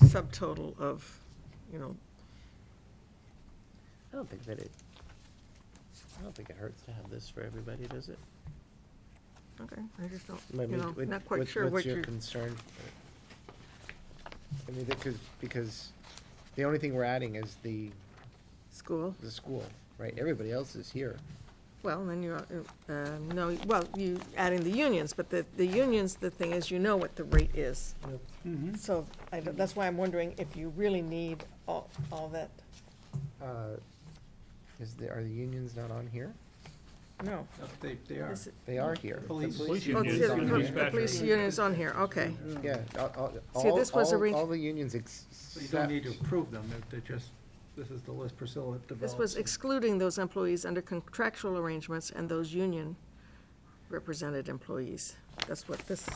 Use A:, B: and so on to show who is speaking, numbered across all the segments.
A: subtotal of, you know,
B: I don't think that it, I don't think it hurts to have this for everybody, does it?
A: okay, I just don't,
B: I
A: you
B: mean,
A: know,
B: what-
A: not quite sure what
B: What's
A: you're,
B: your concern? I mean, because, because the only thing we're adding is the,
A: school.
B: the school, right? Everybody else is here.
A: Well, then you, uh, uh, no, well, you adding the unions, but the, the unions, the thing is, you know what the rate is.
C: Mm-hmm.
A: So I, don't- that's why I'm wondering if you really need all, all that,
B: Uh, Is the, are the unions not on here?
A: no.
C: No, They, they are.
A: Is it-
B: They are here. The
C: Police.
B: police
A: Oh,
C: Unions
A: the-
C: on
A: the
C: here.
A: the police union's on here, okay.
B: Yeah, all, all,
A: See, this was
B: all-
A: orig-
B: all the unions
C: So you don't
B: except,
C: need to approve them, they're- they're just, this is the list Priscilla developed.
A: This was excluding those employees under contractual arrangements and those union represented employees. That's what this,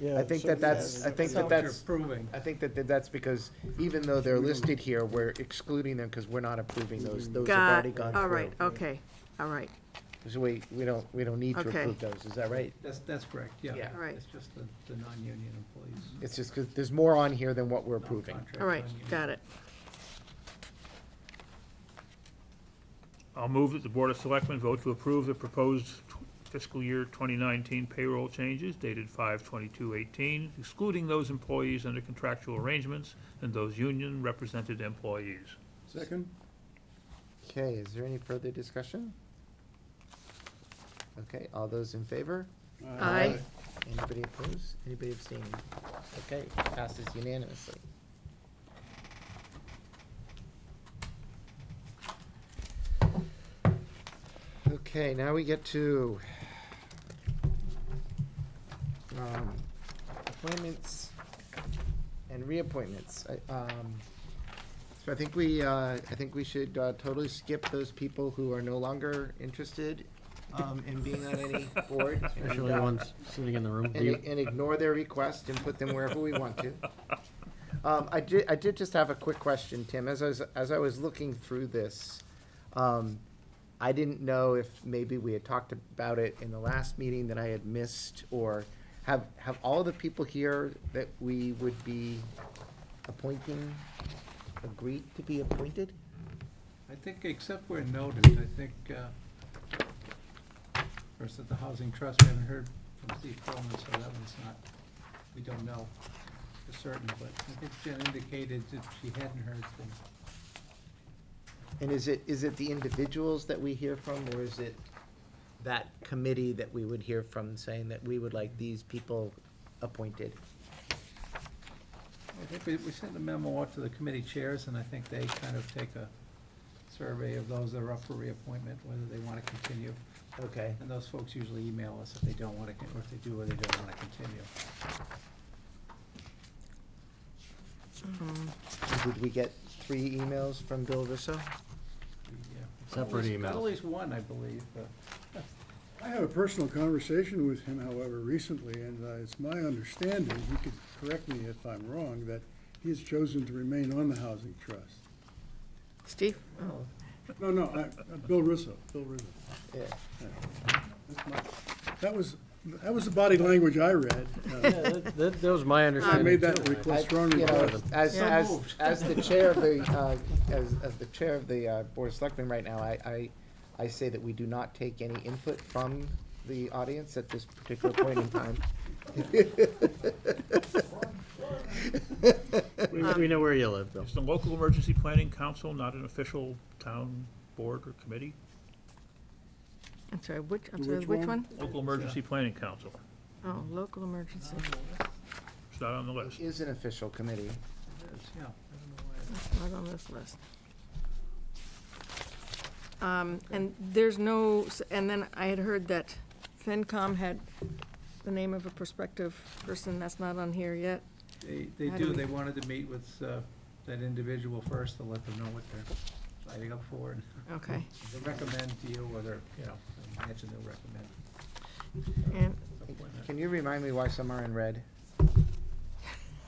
B: I think that that's, I think
C: That's
B: that
C: what you're
B: that's,
C: approving.
B: I think that that that's because even though they're listed here, we're excluding them because we're not approving those, those have
A: got,
B: already gone through.
A: all right, okay, all right.
B: So we, we don't, we don't need to
A: Okay.
B: approve those, is that right?
C: That's, that's correct, yeah.
B: Yeah.
A: Right.
C: It's just the, the non-union employees.
B: It's just because there's more on here than what we're approving.
C: non-contract,
A: All right,
C: non-union.
A: got it.
D: I'll move that the Board of Selectmen vote to approve the proposed fiscal year 2019 payroll changes dated 5/22/18, excluding those employees under contractual arrangements and those union-represented employees.
E: Second?
B: Okay, is there any further discussion? Okay, all those in favor?
A: Aye.
B: Anybody opposed? Anybody abstaining? Okay, passes unanimously. Okay, now we get to um, appointments and reappointments. I- um, So I think we, uh, I think we should uh, totally skip those people who are no longer interested um, in being on any board. and,
E: Especially the
B: uh,
E: ones sitting in the room.
B: and, and ignore their request and put them wherever we want to. Um, I did, I did just have a quick question, Tim, as I was, as I was looking through this, um, I didn't know if maybe we had talked about it in the last meeting that I had missed, or have, have all the people here that we would be appointing agreed to be appointed?
C: I think, except where noted, I think, uh, first at the Housing Trust, we haven't heard from Steve Coleman, so that one's not, we don't know for certain, but I think Jen indicated that she hadn't heard from
B: And is it, is it the individuals that we hear from, or is it that committee that we would hear from saying that we would like these people appointed?
C: I think we, we sent a memo out to the committee chairs, and I think they kind of take a survey of those that are up for reappointment, whether they want to continue.
B: Okay,
C: And those folks usually email us if they don't want to, or if they do or they don't want to continue.
B: did we get three emails from Bill Russo?
C: We, uh, got at
E: Separate
C: least- got
E: emails.
C: At least one, I believe, but
F: I had a personal conversation with him, however, recently, and uh, it's my understanding, he could correct me if I'm wrong, that he has chosen to remain on the Housing Trust.
A: Steve?
F: No, no, I, uh, Bill Russo, Bill Russo.
B: Yeah.
F: That's my- That was, that was the body language I read. Uh,
E: That, that- that was my
F: I
E: understanding.
F: made that
E: too.
B: I-
F: request strongly.
B: you know, As,
A: Yeah.
B: as, as the chair of the, uh, as, as the chair of the uh, Board of Selectmen right now, I, I, I say that we do not take any input from the audience at this particular point in time.
E: We, we know where you live, Bill.
D: Is the local emergency planning council not an official town board or committee?
A: I'm sorry, which, I'm sorry,
F: Which
A: which one?
F: one?
D: Local emergency planning council,
A: Oh, local emergency.
D: it's not on the list.
B: Is an official committee.
C: it's, yeah, I don't know why.
A: That's not on this list. Um, and there's no, s- and then I had heard that FinCom had the name of a prospective person, that's not on here yet.
C: They, they
A: How do
C: do,
A: we-
C: they wanted to meet with, uh, that individual first to let them know what they're signing up for. and
A: Okay,
C: They recommend to you whether, you know, I imagine they'll recommend.
A: and,
C: appointment.
B: Can you remind me why some are in red?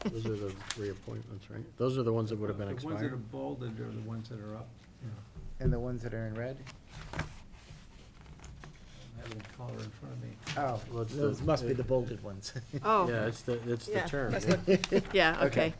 E: Those are the reappointments, right? Those are the ones that would have been
C: The ones that are
E: expired.
C: bolded are the ones that are up, you know,
B: And the ones that are in red?
C: I don't have any color in front of me.
B: Oh,
E: Well, it's
B: those
E: the-
B: must be the bolded ones.
A: oh,
E: Yeah, it's the, it's the
A: Yeah,
E: term.
A: yeah, okay.